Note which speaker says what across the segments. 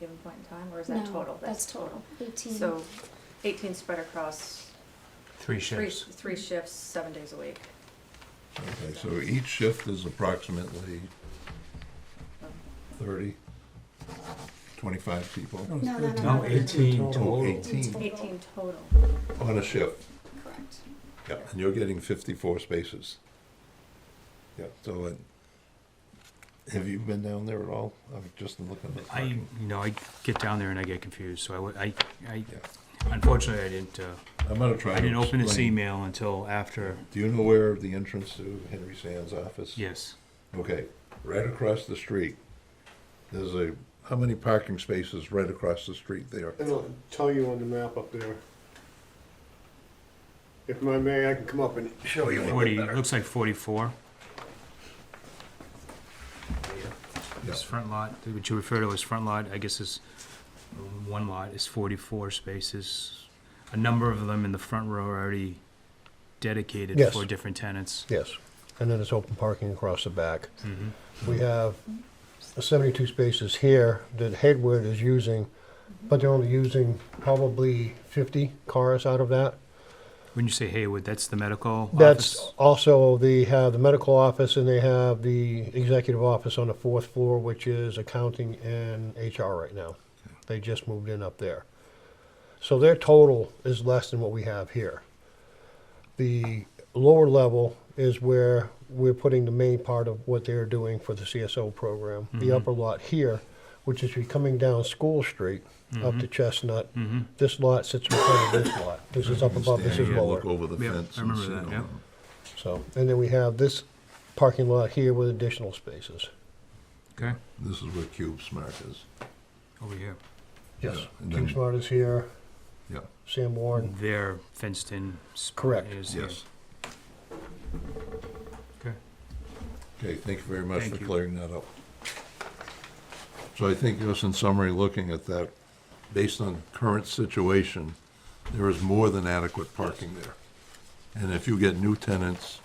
Speaker 1: given point in time, or is that
Speaker 2: No,
Speaker 1: total?
Speaker 2: That's total, Mm-hmm. eighteen.
Speaker 1: So eighteen spread across
Speaker 3: Three
Speaker 1: three,
Speaker 3: shifts.
Speaker 1: three shifts, seven days a week.
Speaker 4: Okay, so each shift is approximately 30, 25 people
Speaker 2: No, no, no,
Speaker 1: No,
Speaker 2: no.
Speaker 1: 18
Speaker 5: Oh,
Speaker 4: total.
Speaker 1: Eighteen total.
Speaker 4: on a shift.
Speaker 2: Correct.
Speaker 4: Yeah, and you're getting 54 spaces. Yeah, so it, have you been down there at all? I'm just looking at.
Speaker 3: I, you know, I get down there and I get confused, so I wa- I, I,
Speaker 4: Yeah.
Speaker 3: unfortunately, I didn't, uh,
Speaker 4: I'm gonna try
Speaker 3: I
Speaker 4: to
Speaker 3: didn't open this
Speaker 4: explain.
Speaker 3: email until after,
Speaker 4: Do you know where the entrance to Henry Sands' office?
Speaker 3: yes.
Speaker 4: Okay, right across the street. There's a, how many parking spaces right across the street there?
Speaker 6: It'll tell you on the map up there. If my may, I can come up and show you.
Speaker 3: Forty, looks like forty-four. This
Speaker 4: Yeah.
Speaker 3: front lot, which you refer to as front lot, I guess is, mm, one lot is forty-four spaces. A number of them in the front row are already dedicated
Speaker 5: Yes.
Speaker 3: for different tenants.
Speaker 5: Yes, and then it's open parking across the back.
Speaker 4: Mm-hmm.
Speaker 5: We have 72 spaces here that Hayward is using, but they're only using probably 50 cars out of that.
Speaker 3: When you say Haywood, that's the medical
Speaker 5: That's
Speaker 3: office?
Speaker 5: also, they have the medical office and they have the executive office on the fourth floor, which is accounting and HR right now. They just moved in up there. So their total is less than what we have here. The lower level is where we're putting the main part of what they're doing for the CSO program.
Speaker 3: Mm-hmm.
Speaker 5: The upper lot here, which is you're coming down School Street up
Speaker 3: Mm-hmm.
Speaker 5: to Chestnut. This lot sits in front of this lot. This is up above, this is
Speaker 4: Stand and
Speaker 5: lower.
Speaker 4: Look over the
Speaker 3: Yeah,
Speaker 4: fence.
Speaker 3: I
Speaker 4: and
Speaker 3: remember
Speaker 4: see
Speaker 3: that,
Speaker 4: all
Speaker 3: yeah.
Speaker 5: So, and then we have this parking lot here with additional spaces.
Speaker 3: Okay,
Speaker 4: This is where Cube Smart is.
Speaker 3: over here.
Speaker 4: Yeah, and
Speaker 5: King
Speaker 4: then-
Speaker 5: Smart is here,
Speaker 4: Yeah,
Speaker 5: Sam Warren.
Speaker 3: Their fenced in. spot
Speaker 5: Correct.
Speaker 3: is here.
Speaker 4: yes.
Speaker 3: Okay.
Speaker 4: Okay, thank you very much
Speaker 3: Thank
Speaker 4: for
Speaker 3: you.
Speaker 4: clearing that up. So I think just in summary, looking at that, based on current situation, there is more than adequate parking there. And if you get new tenants,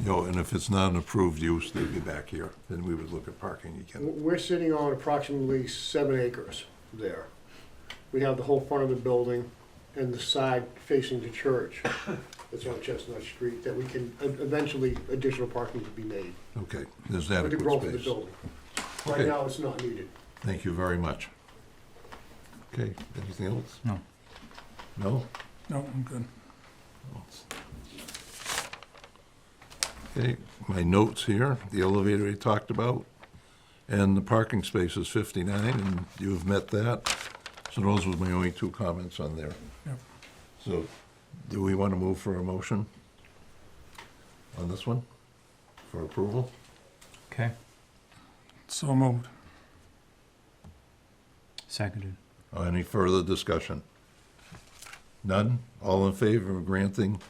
Speaker 4: you know, and if it's not an approved use, they'd be back here, then we would look at parking again.
Speaker 6: We're sitting on approximately seven acres there. We have the whole front of the building and the side facing the church. It's on Chestnut Street that we can, e-, eventually additional parking could be made
Speaker 4: Okay,
Speaker 6: with
Speaker 4: there's
Speaker 6: the
Speaker 4: adequate
Speaker 6: growth of the
Speaker 4: space.
Speaker 6: building. Right
Speaker 4: Okay.
Speaker 6: now, it's not needed.
Speaker 4: Thank you very much. Okay, anything else?
Speaker 3: No.
Speaker 4: No?
Speaker 7: No, I'm good.
Speaker 4: Okay, my notes here, the elevator we talked about, and the parking space is fifty-nine, and you've met that. So those were my only two comments on there.
Speaker 7: Yep.
Speaker 4: So, do we want to move for a motion on this one, for approval?
Speaker 3: Okay,
Speaker 7: So moved.
Speaker 3: seconded.
Speaker 4: Uh, Any further discussion? None? All in favor of granting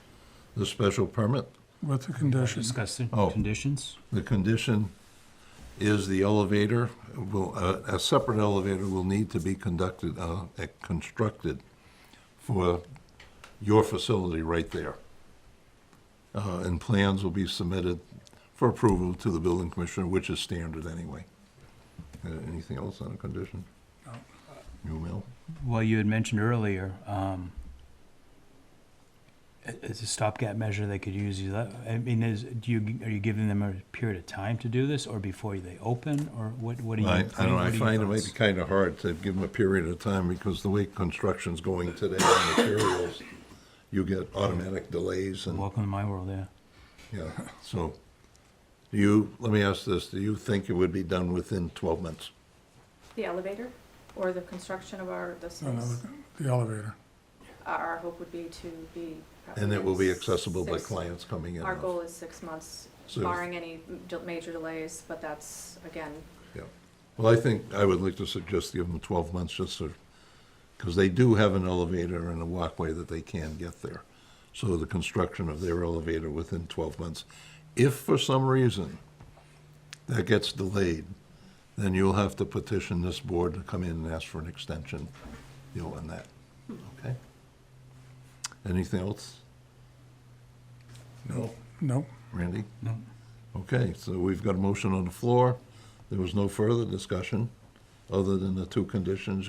Speaker 4: the special permit?
Speaker 7: With the condition.
Speaker 3: Discuss the
Speaker 4: Oh.
Speaker 3: conditions.
Speaker 4: The condition is the elevator will, a a separate elevator will need to be conducted, uh, eh, constructed for your facility right there. Uh, And plans will be submitted for approval to the building commissioner, which is standard anyway. Uh, Anything else on the condition?
Speaker 7: No.
Speaker 4: You, Mel?
Speaker 3: Well, you had mentioned earlier, um, i- it's a stopgap measure they could use. Is that- I mean, is, do you, are you giving them a period of time to do this or before they open or what, what do you?
Speaker 4: I, I
Speaker 3: what
Speaker 4: don't know, I
Speaker 3: do you
Speaker 4: find it might be
Speaker 3: thoughts?
Speaker 4: kind of hard to give them a period of time because the way construction's going today on materials, you get automatic delays and,
Speaker 3: Welcome to my world, yeah.
Speaker 4: yeah, so. Do you, let me ask this, do you think it would be done within twelve months?
Speaker 1: The elevator or the construction of our, the
Speaker 7: Oh, No, no,
Speaker 1: space,
Speaker 7: The elevator.
Speaker 1: our, our hope would be to be. probably
Speaker 4: And it will be
Speaker 1: six-
Speaker 4: accessible by
Speaker 1: six-
Speaker 4: clients coming in?
Speaker 1: Our goal is six months,
Speaker 4: So-
Speaker 1: barring any del- major delays, but that's, again,
Speaker 4: Yeah. Well, I think I would like to suggest give them twelve months just so, because they do have an elevator and a walkway that they can get there. So the construction of their elevator within twelve months. If for some reason that gets delayed, then you'll have to petition this board to come in and ask for an extension, you know, on that, okay? Anything else? No.
Speaker 7: No.
Speaker 4: Randy?
Speaker 3: No.
Speaker 4: Okay, so we've got a motion on the floor. There was no further discussion. other than the two conditions